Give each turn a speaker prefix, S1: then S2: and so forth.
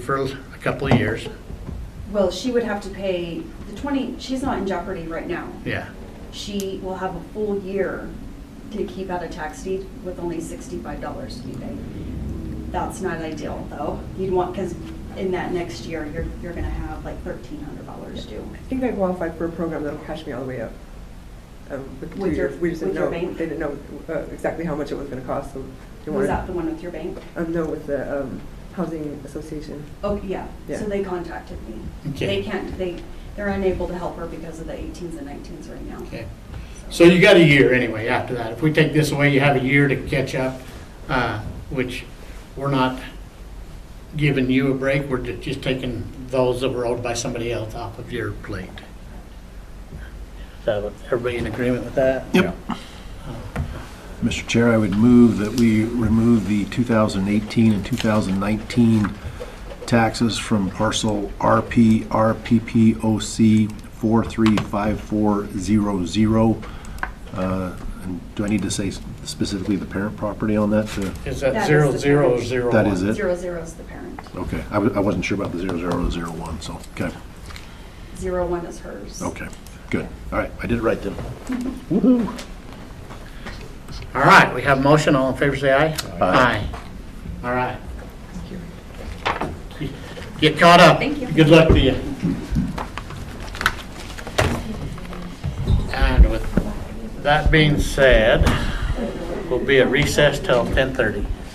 S1: for a couple of years,
S2: Well, she would have to pay the 20, she's not in jeopardy right now.
S1: yeah.
S2: She will have a full year to keep out a tax deed with only $65 to be paid. That's not ideal, though. You'd want, because in that next year, you're, you're going to have like $1,300 due.
S3: I think I qualified for a program that'll cash me all the way up. Um, With two
S2: With your-
S3: years. We just
S2: with your
S3: didn't know,
S2: bank?
S3: they didn't know uh, exactly how much it was going to cost, so. they
S2: Was
S3: wanted-
S2: that the one with your bank?
S3: Um, no, with the um, Housing Association.
S2: Oh, yeah. So
S3: Yeah.
S2: they contacted me.
S1: Okay.
S2: They can't, they, they're unable to help her because of the 18s and 19s right now.
S1: Okay. So you got a year anyway after that. If we take this away, you have a year to catch up, uh, which we're not giving you a break. We're ju- just taking those that were owed by somebody else off of your plate. So everybody in agreement with that?
S4: Yep. Mr. Chair, I would move that we remove the 2018 and 2019 taxes from parcel RP RPPOC 435400. Uh, and Do I need to say specifically the parent property on that? to-
S1: Is
S2: That
S1: that
S2: is
S1: zero,
S2: the-
S1: zero, or zero?
S4: That
S1: one?
S4: is it?
S2: Zero zero's the parent.
S4: Okay, I wa- I wasn't sure about the 0001, so, okay,
S2: Zero one is hers.
S4: okay, good. All right, I did it right then.
S1: All right, we have a motion. All in favor, say aye.
S4: Aye.
S1: All right. Get caught up.
S2: Thank you.
S1: Good luck to you. And with that being said, we'll be at recess till 10:30.